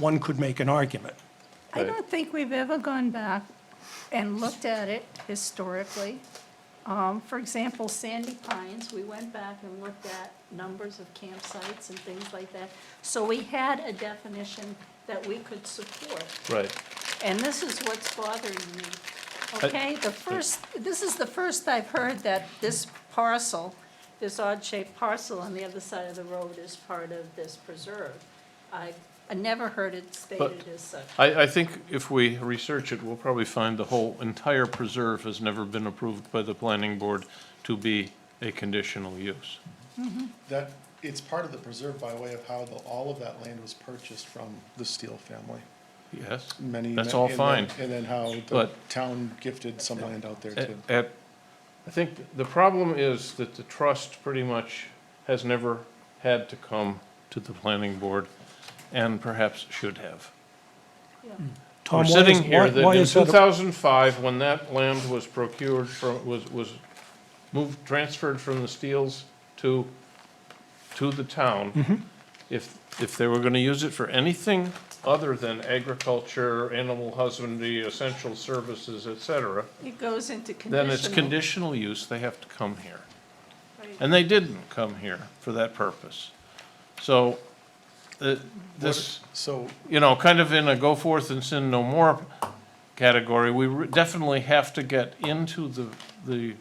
one could make an argument. I don't think we've ever gone back and looked at it historically. Um, For example, Sandy Pines, we went back and looked at numbers of campsites and things like that. So we had a definition that we could support, Right. and this is what's bothering me, okay? The first, this is the first I've heard that this parcel, this odd-shaped parcel on the other side of the road is part of this preserve. I I never heard it stated as such. I, I think if we research it, we'll probably find the whole entire preserve has never been approved by the planning board to be a conditional use. That, it's part of the preserve by way of how the, all of that land was purchased from the Steele family. Yes? Many. That's all and then- fine. And then how the But- town gifted some land out there At, too. at- I think the problem is that the trust pretty much has never had to come to the planning board and perhaps should have. Tom, We're why is- sitting here why- that why in is that a- 2005, when that land was procured from, was, was moved, transferred from the Steels to, to the Mm-hmm. town, if, if they were going to use it for anything other than agriculture, animal husbandry, essential services, et cetera, It goes into conditional. then it's conditional use, they have to come here. right. And they didn't come here for that purpose. So, uh, this So, you know, kind of in a go forth and sin no more category, we re- definitely have to get into the, the,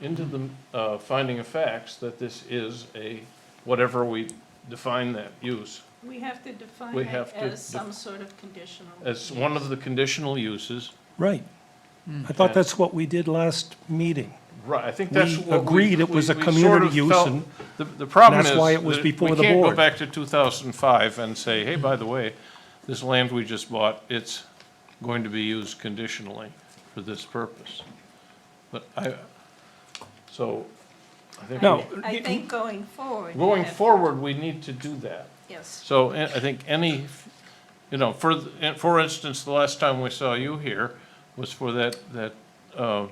into the, uh, finding of facts that this is a, whatever we define that use, We have to define We it have to as def- some sort of conditional. as one of the conditional uses. Right. I thought that's what we did last meeting. Right, I think We that's what we. agreed it was a we- we sort of community use felt- and The, the problem is. that's why it was that before the We can't go board. back to two thousand and five and say, hey, by the way, this land we just bought, it's going to be used conditionally for this purpose. But I, so, I think. No. I think going forward. you Going have- forward, we need to do that. Yes, So I I think any, you know, for, the- for instance, the last time we saw you here was for that, that, uh,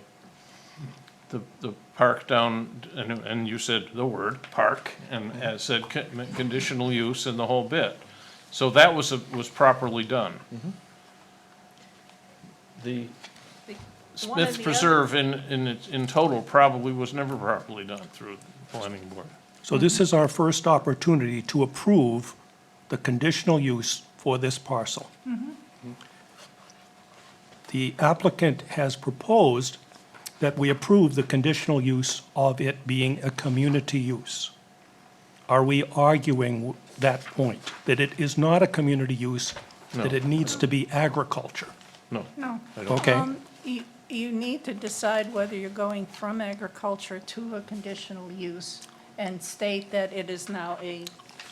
the, the park down, and, and you said the word, park, and as said, con- conditional use and the whole bit. So that was, a- was properly done. The The- one of Smith the Preserve in, in, its- in total probably was never properly done through the planning board. So this is our first opportunity to approve the conditional use for this parcel. Mm-hmm. The applicant has proposed that we approve the conditional use of it being a community use. Are we arguing that point, that it is not a community use, that No. it needs to be agriculture? No. no. Okay, Um, You, you need to decide whether you're going from agriculture to a conditional use and state that it is now a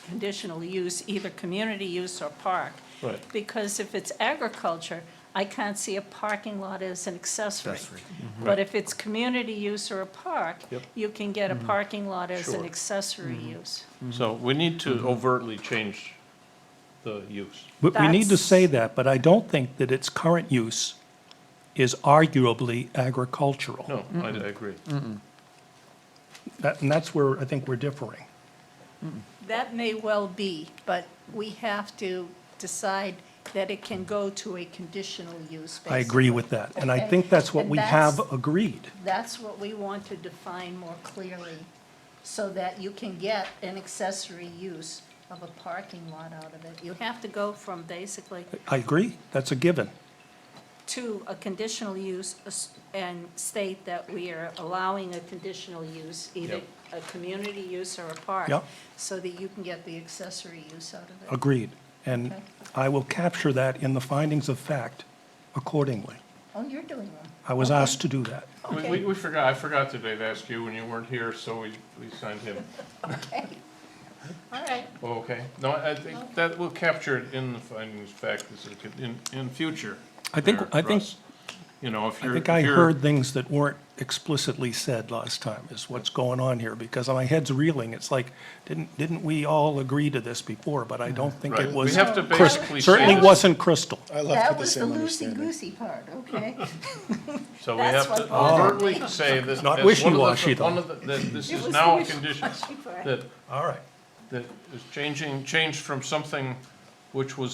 conditional use, either community use or park. Right. Because if it's agriculture, I can't see a parking lot as an accessory. Mm-hmm. But if it's community use or a park, Yep. you can get a Mm-hmm. parking lot as an Sure. accessory use. So we need Mm-hmm. to overtly change the use. we, we need to That's- say that, but I don't think that its current use is arguably agricultural. No, I I agree. That, and that's where I think we're differing. That may well be, but we have to decide that it can go to a conditional use. I agree with that, and I Okay. think that's what And we that's- have agreed. basically. That's what we want to define more clearly, so that you can get an accessory use of a parking lot out of it. You have to go from basically I agree, that's a given. to a conditional use as- and state that we are allowing a conditional use, either Yep. a community use or a park, Yep. so that you can get the accessory use out of it. Agreed. And Okay. I will capture that in the findings of fact accordingly. Oh, you're doing one. I was asked to do that. We- We, we forgot, I forgot today to ask you when you weren't here, so we, we signed him. Oh, Okay. All right, Okay, no, I think that will capture it in the findings of fact, this is good, in, in future. I think- there, I think- Russ. You know, if I you're. think I if you're- heard things that weren't explicitly said last time, is what's going on here, because my head's reeling. It's like, didn't, didn't we all agree to this before? But I don't think Mm-hmm. Right, it we was, have to Chris- basically. certainly change- wasn't crystal. I left that with the was the same understanding. loosey-goosey part, okay? So we that's have to what bothered overtly say Not this. as one of the- wishy-washy, though. One of the, that this It is was now a wishy-washy condition, part. that, All right. that is changing, changed from something which was